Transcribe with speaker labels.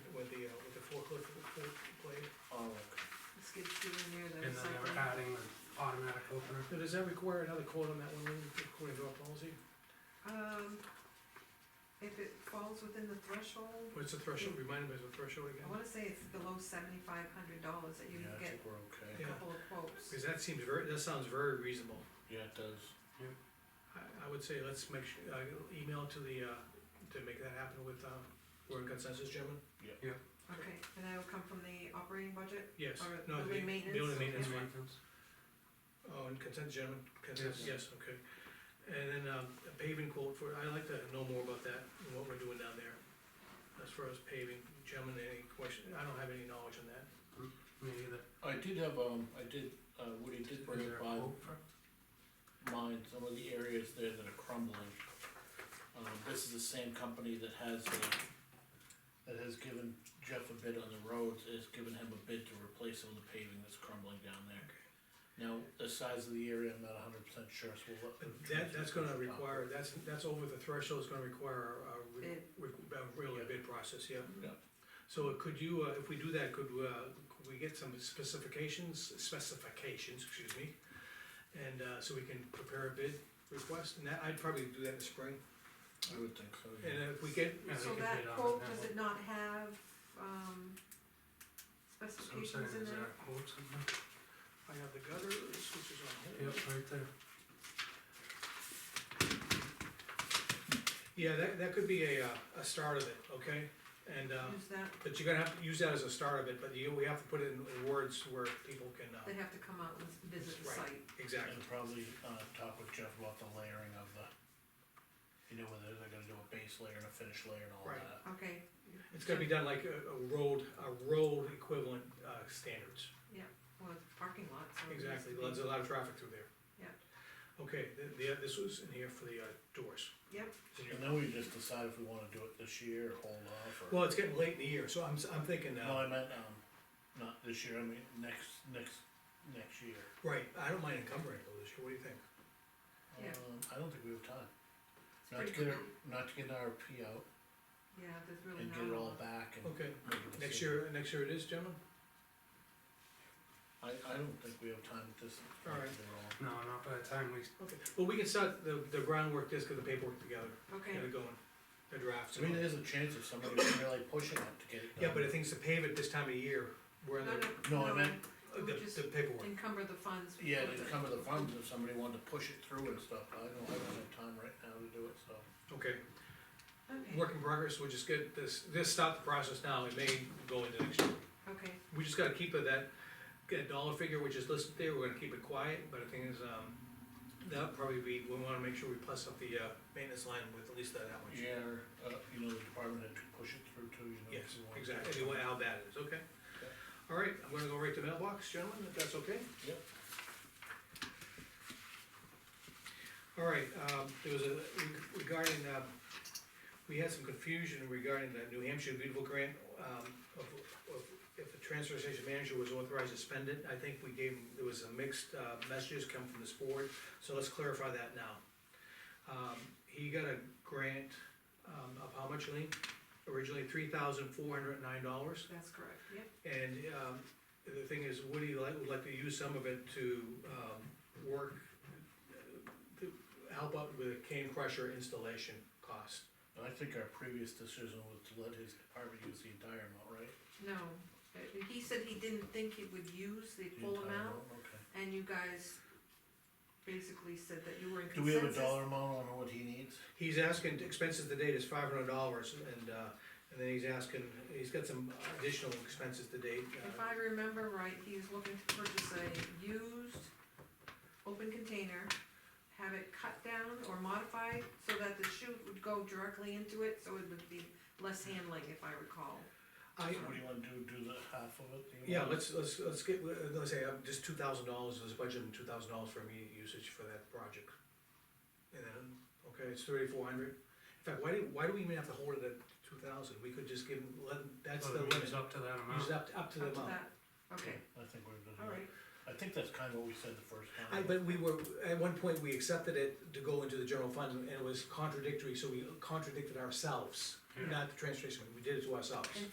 Speaker 1: uh,
Speaker 2: Oh,
Speaker 3: dynamic harding and automatic opener.
Speaker 1: Now, does that require another quote on that one, Lynn, according to our policy?
Speaker 4: Um, if it falls within the threshold,
Speaker 1: What's the threshold, remind me of the threshold
Speaker 4: I
Speaker 1: again?
Speaker 4: wanna say it's below seventy-five hundred dollars that you
Speaker 2: Yeah,
Speaker 4: can
Speaker 2: I
Speaker 4: get
Speaker 2: think we're okay.
Speaker 4: a
Speaker 1: Yeah.
Speaker 4: couple of quotes.
Speaker 1: Because that seems very, that sounds very reasonable.
Speaker 2: Yeah, it does.
Speaker 1: I, I would say let's make, su- uh, email to the, uh, to make that happen with, um, we're in consensus, gentlemen?
Speaker 4: Okay, and that'll come from the operating budget?
Speaker 1: Yes,
Speaker 4: All right,
Speaker 1: no, the,
Speaker 4: building
Speaker 1: the only maintenance
Speaker 4: maintenance.
Speaker 1: one.
Speaker 3: Maintenance.
Speaker 1: Oh, and consent, gentlemen, consent, yes, okay. And then, um, a paving quote for, I'd like to know more about that, and what we're doing down there. As far as paving, gentlemen, any question, I don't have any knowledge on that.
Speaker 3: Me either.
Speaker 2: I did have, um, I did, uh, Woody did bring
Speaker 3: Is there a
Speaker 2: up on
Speaker 3: quote for it?
Speaker 2: mine, some of the areas there that are crumbling. Um, this is the same company that has the, that has given Jeff a bid on the roads, has given him a bid to replace all the paving that's crumbling down there. Now, the size of the area, I'm not hundred percent sure, so we'll.
Speaker 1: But that, that's gonna require, that's, that's over the threshold, it's gonna require a, a, re-
Speaker 4: Bid.
Speaker 1: re- a really bid process, yeah.
Speaker 2: Yeah.
Speaker 1: So could you, uh, if we do that, could, uh, could we get some specifications, specifications, excuse me? And, uh, so we can prepare a bid request, and that, I'd probably do that in the spring,
Speaker 2: I would think so, yeah.
Speaker 1: and if we get,
Speaker 3: Yeah, they
Speaker 4: So
Speaker 3: could
Speaker 4: that
Speaker 3: bid on it
Speaker 4: quote,
Speaker 3: that
Speaker 4: does
Speaker 3: way.
Speaker 4: it not have, um,
Speaker 3: So I'm saying,
Speaker 4: specifications in
Speaker 3: is there
Speaker 4: there?
Speaker 3: a quote somewhere?
Speaker 1: I have the gutters, which is on hold.
Speaker 3: Yep, right there.
Speaker 1: Yeah, that, that could be a, uh, a start of it, okay? And, uh,
Speaker 4: Use that,
Speaker 1: but you're gonna have to use that as a start of it, but you, we have to put it in- in words where people can, uh,
Speaker 4: they have to come out and visit the
Speaker 1: Right.
Speaker 4: site.
Speaker 1: exactly.
Speaker 2: And probably, uh, talk with Jeff about the layering of the, you know, whether they're gonna do a base layer and a finish layer and all
Speaker 1: Right.
Speaker 2: that.
Speaker 4: Okay,
Speaker 1: It's gonna be done like a, a road, a road equivalent, uh, standards,
Speaker 4: well, it's parking lot, so. it needs to
Speaker 1: exactly,
Speaker 4: be-
Speaker 1: there's a lot of traffic through there.
Speaker 4: Yeah.
Speaker 1: Okay, the, the, this was in here for the, uh, doors.
Speaker 4: Yep.
Speaker 1: It's in here.
Speaker 2: And then we just decide if we wanna do it this year or hold off or.
Speaker 1: Well, it's getting late in the year, so I'm, s- I'm thinking,
Speaker 2: No,
Speaker 1: uh,
Speaker 2: I meant, um, not this year, I mean, next, next, next year.
Speaker 1: right, I don't mind encumbering it this year, what do you think?
Speaker 4: Yeah.
Speaker 2: Um, I don't think we have time.
Speaker 4: It's
Speaker 2: Not to
Speaker 4: pretty
Speaker 2: get,
Speaker 4: good.
Speaker 2: our- not to get our P out
Speaker 4: Yeah, there's really
Speaker 2: and
Speaker 4: not
Speaker 2: get
Speaker 4: a
Speaker 2: it all
Speaker 4: lot.
Speaker 2: back and.
Speaker 1: Okay,
Speaker 2: make a
Speaker 1: next
Speaker 2: decision.
Speaker 1: year, next year it is, gentlemen?
Speaker 2: I, I don't think we have time at this.
Speaker 1: All right.
Speaker 2: They're all-
Speaker 3: No, not by the time we,
Speaker 1: Okay, well, we can start the, the groundwork, just get the paperwork together,
Speaker 4: Okay,
Speaker 1: get it going, the drafts.
Speaker 2: I
Speaker 1: and
Speaker 2: mean,
Speaker 1: all.
Speaker 2: there's a chance of somebody really pushing it to get it done.
Speaker 1: Yeah, but the thing's to pave it this time of year, we're in
Speaker 4: no,
Speaker 1: the,
Speaker 4: no,
Speaker 2: No, I
Speaker 4: no,
Speaker 2: meant-
Speaker 4: we
Speaker 1: the
Speaker 4: just
Speaker 1: the paperwork.
Speaker 4: encumber the funds.
Speaker 2: Yeah,
Speaker 4: with
Speaker 2: to
Speaker 4: it.
Speaker 2: come to the funds if somebody wanted to push it through and stuff, I don't, I don't have time right now to do it, so.
Speaker 1: Okay,
Speaker 4: Okay,
Speaker 1: work in progress, we'll just get this, just stop the process now, it may go into next year.
Speaker 4: okay,
Speaker 1: We just gotta keep it that, get a dollar figure, which is listed there, we're gonna keep it quiet, but the thing is, um, that'll probably be, we wanna make sure we plus up the, uh, maintenance line with at least that much.
Speaker 2: Yeah, or, uh, you know, the department had to push it through too, you know.
Speaker 1: Yes,
Speaker 2: if you want.
Speaker 1: exactly, anyway, how bad it is, okay?
Speaker 2: Okay.
Speaker 1: All right, I'm gonna go right to mailbox, gentlemen, if that's okay?
Speaker 2: Yep.
Speaker 1: All right, um, there was a, regarding, um, we had some confusion regarding the New Hampshire Beautiful Grant, um, of, of, if the transfer station manager was authorized to spend it, I think we gave, there was a mixed, uh, messages come from this board, so let's clarify that now. Um, he got a grant, um, of how much, Lean? Originally three thousand four hundred and nine dollars,
Speaker 4: that's correct, yep.
Speaker 1: and, um, the thing is, Woody like, would like to use some of it to, um, work, uh, to help out with a cane crusher installation cost.
Speaker 2: And I think our previous decision was to let his department use the entire amount, right?
Speaker 4: No, Uh, he said he didn't think he would use the
Speaker 2: The
Speaker 4: full
Speaker 2: entire
Speaker 4: amount,
Speaker 2: Okay.
Speaker 4: and you guys basically said that you were in
Speaker 2: Do we have a
Speaker 4: consensus.
Speaker 2: dollar amount on what he needs?
Speaker 1: He's asking, expenses to date is five hundred dollars, and, uh, and then he's asking, he's got some additional expenses to date. uh,
Speaker 4: If I remember right, he was looking to purchase a used open container, have it cut down or modified so that the chute would go directly into it, so it would be less handling, if I recall.
Speaker 2: So
Speaker 1: I,
Speaker 2: what do you wanna do, do the half of it? the
Speaker 1: yeah,
Speaker 2: amount?
Speaker 1: let's, let's, let's get, uh, let's say, uh, just two thousand dollars, let's budget two thousand dollars for immediate usage for that project. And then, okay, it's thirty-four hundred, in fact, why do, why do we even have to hold it at two thousand, we could just give, him- let, that's the
Speaker 3: whether
Speaker 1: limit.
Speaker 3: we
Speaker 1: Use
Speaker 3: use up to that amount.
Speaker 1: it up, up to the
Speaker 4: Up to
Speaker 1: amount.
Speaker 4: that, okay,
Speaker 2: I think we're good.
Speaker 4: all right.
Speaker 2: I think that's kinda what we said the first time.
Speaker 1: I, but we were, at one point, we accepted it to go into the general fund, and it was contradictory, so we contradicted ourselves,
Speaker 3: Yeah.
Speaker 1: not the transfer station, we did it to ourselves.
Speaker 4: And